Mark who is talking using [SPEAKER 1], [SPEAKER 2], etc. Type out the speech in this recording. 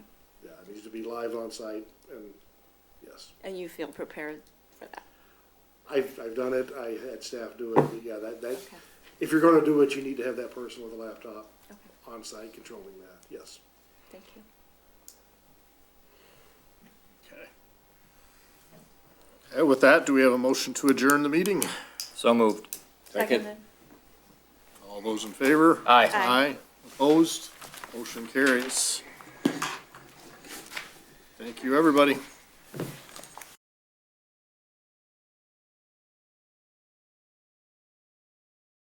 [SPEAKER 1] be live on site, and yes.
[SPEAKER 2] And you feel prepared for that?
[SPEAKER 1] I've, I've done it, I had staff do it, but yeah, that, that,
[SPEAKER 2] Okay.
[SPEAKER 1] if you're gonna do it, you need to have that person with a laptop
[SPEAKER 2] Okay,
[SPEAKER 1] on site controlling that, yes.
[SPEAKER 2] thank you.
[SPEAKER 3] Okay. Okay, with that, do we have a motion to adjourn the meeting?
[SPEAKER 4] So moved.
[SPEAKER 2] Seconded.
[SPEAKER 3] All those in favor?
[SPEAKER 4] Aye.
[SPEAKER 2] Aye.
[SPEAKER 3] Aye. Opposed? Motion carries. Thank you, everybody.